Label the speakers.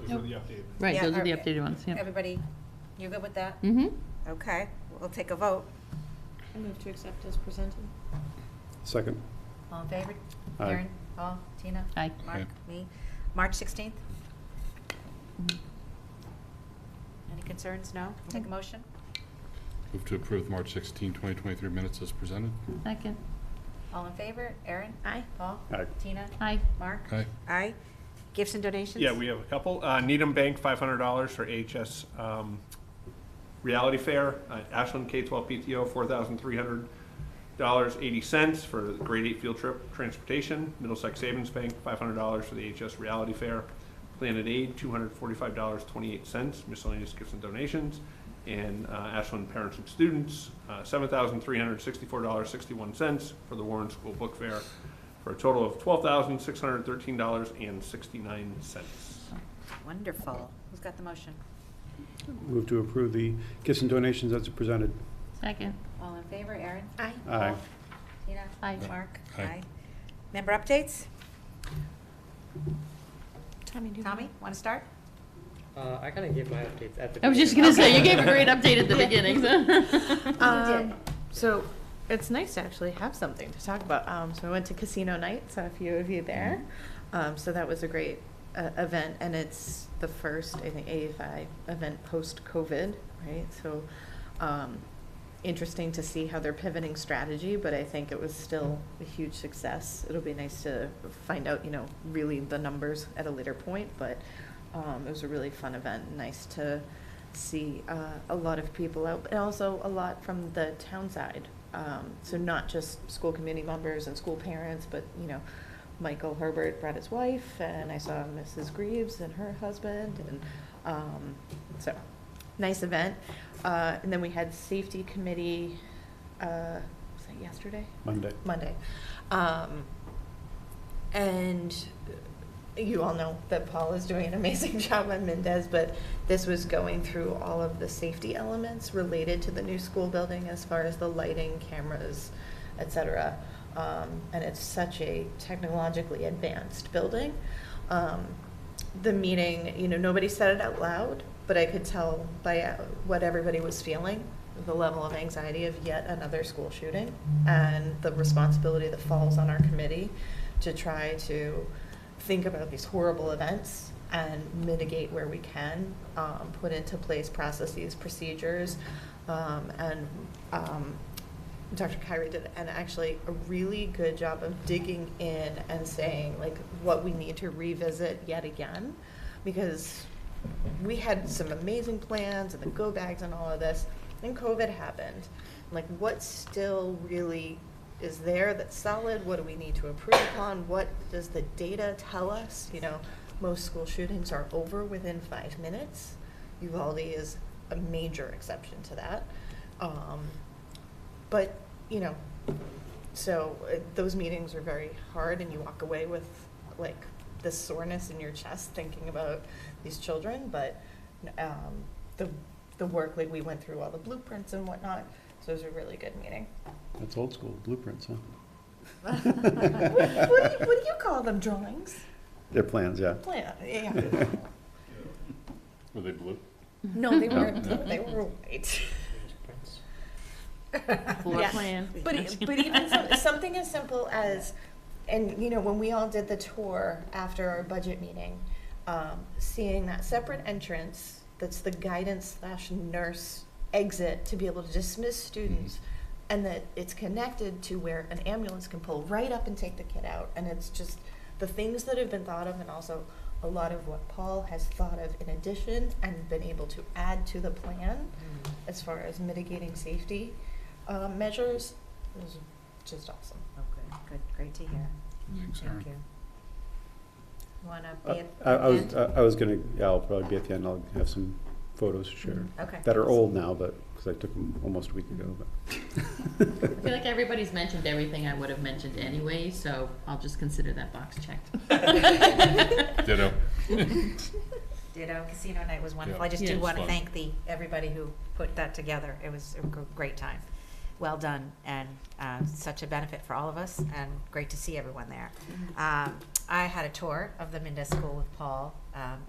Speaker 1: Those are the updated.
Speaker 2: Right,
Speaker 3: Yeah,
Speaker 2: those are the
Speaker 3: okay.
Speaker 2: updated ones, yeah.
Speaker 3: Everybody, you good with
Speaker 4: Mm.
Speaker 3: that?
Speaker 2: Mm-hmm.
Speaker 3: Okay, we'll take a vote.
Speaker 4: I move to accept as presented.
Speaker 5: Second.
Speaker 3: All in favor?
Speaker 5: Aye.
Speaker 3: Karen, Paul, Tina?
Speaker 2: Aye.
Speaker 3: Mark,
Speaker 6: Aye.
Speaker 3: me. March 16th?
Speaker 4: Mm-hmm.
Speaker 3: Any concerns? No? Take a motion?
Speaker 6: Move to approve the March 16, 2023 minutes as presented.
Speaker 2: Second.
Speaker 3: All in favor? Aaron?
Speaker 4: Aye.
Speaker 3: Paul?
Speaker 5: Aye.
Speaker 3: Tina?
Speaker 2: Aye.
Speaker 3: Mark?
Speaker 6: Aye.
Speaker 3: Aye. Gifts and donations?
Speaker 1: Yeah, we have a couple. Uh, Needham Bank, five hundred dollars for HS, um, Reality Fair. Uh, Ashland K-12 PTO, four thousand three hundred dollars, eighty cents for the grade eight field trip transportation. Middlesex Savings Bank, five hundred dollars for the HS Reality Fair. Planet Aid, two hundred forty-five dollars, twenty-eight cents, miscellaneous gifts and donations. And, uh, Ashland Parents and Students, uh, seven thousand three hundred sixty-four dollars, sixty-one cents for the Warren School Book Fair for a total of twelve thousand six hundred thirteen dollars and sixty-nine cents.
Speaker 3: Wonderful. Who's got the motion?
Speaker 5: Move to approve the gifts and donations as presented.
Speaker 2: Second.
Speaker 3: All in favor? Aaron?
Speaker 4: Aye.
Speaker 5: Aye.
Speaker 3: Paul? Tina?
Speaker 2: Aye.
Speaker 3: Mark?
Speaker 6: Aye.
Speaker 3: Member updates?
Speaker 4: Tommy, do you?
Speaker 3: Tommy, want to start?
Speaker 7: Uh, I kind of give my updates at the.
Speaker 2: I was just
Speaker 7: beginning.
Speaker 2: gonna say, you gave a great update at the beginning,
Speaker 4: Um, so it's nice to actually have something to talk about. Um, so I went to casino night, saw a few of you there. Um, so that was a great uh, event, and it's the first, I think, AFI event post COVID, right? So um, interesting to see how they're pivoting strategy, but I think it was still a huge success. It'll be nice to find out, you know, really the numbers at a later point, but um, it was a really fun event. Nice to see uh, a lot of people out, and also a lot from the town side. Um, so not just school community members and school parents, but you know, Michael Herbert brought his wife, and I saw Mrs. Greaves and her husband, and um, so nice event. Uh, and then we had safety committee. Uh, was that yesterday?
Speaker 5: Monday.
Speaker 4: Monday. Um, and you all know that Paul is doing an amazing job on Mendez, but this was going through all of the safety elements related to the new school building as far as the lighting, cameras, et cetera. Um, and it's such a technologically advanced building. Um, the meeting, you know, nobody said it out loud, but I could tell by uh, what everybody was feeling, the level of anxiety of yet another school shooting, and the responsibility that falls on our committee to try to think about these horrible events and mitigate where we can, um, put into place processes, procedures, um, and um, Dr. Kyrie did an actually a really good job of digging in and saying like what we need to revisit yet again because we had some amazing plans and the go bags and all of this then covid happened like what still really is there that's solid what do we need to improve upon what does the data tell us you know most school shootings are over within five minutes uvalde is a major exception to that um, but, you know, so uh, those meetings are very hard and you walk away with like this soreness in your chest thinking about these children, but um, the, the work, like we went through all the blueprints and whatnot, so it was a really good meeting.
Speaker 5: That's old school blueprints, huh?
Speaker 4: What do you, what do you- what do you call them, drawings?
Speaker 5: Their plans, yeah.
Speaker 4: Plan, yeah.
Speaker 6: Were they blue?
Speaker 4: No, they
Speaker 6: No.
Speaker 4: weren't, they were white.
Speaker 2: floor
Speaker 4: Yes.
Speaker 2: plan.
Speaker 4: But, e- but even some, something as simple as, and you know, when we all did the tour after our budget meeting, um, seeing that separate entrance, that's the guidance slash nurse exit to be able to dismiss students, and that it's connected to where an ambulance can pull right up and take the kid out, and it's just the things that have been thought of, and also a lot of what Paul has thought of in addition and been able to add to the plan as far as mitigating safety uh, measures is just awesome.
Speaker 3: Oh, good, good, great to hear.
Speaker 6: Thanks, Aaron.
Speaker 3: Thank you. Want to
Speaker 5: I,
Speaker 3: be at
Speaker 5: Uh, I
Speaker 3: the
Speaker 5: was,
Speaker 3: end?
Speaker 5: I I was gonna, yeah, I'll probably be at the end. I'll have some photos to share
Speaker 3: Okay.
Speaker 5: that are old now, but, because I took them almost a week ago, but.
Speaker 2: I feel like everybody's mentioned everything I would have mentioned anyway, so I'll just consider that box checked.
Speaker 6: Ditto.
Speaker 3: Ditto, casino night was wonderful.
Speaker 6: Yeah.
Speaker 3: I just do
Speaker 2: Yeah.
Speaker 3: want to
Speaker 6: Fun.
Speaker 3: thank the, everybody who put that together. It was a gr- great time. Well done, and uh, such a benefit for all of us, and
Speaker 5: Mm-hmm.
Speaker 3: great to see everyone there. Um, I had a tour of the Mendez School with Paul, um,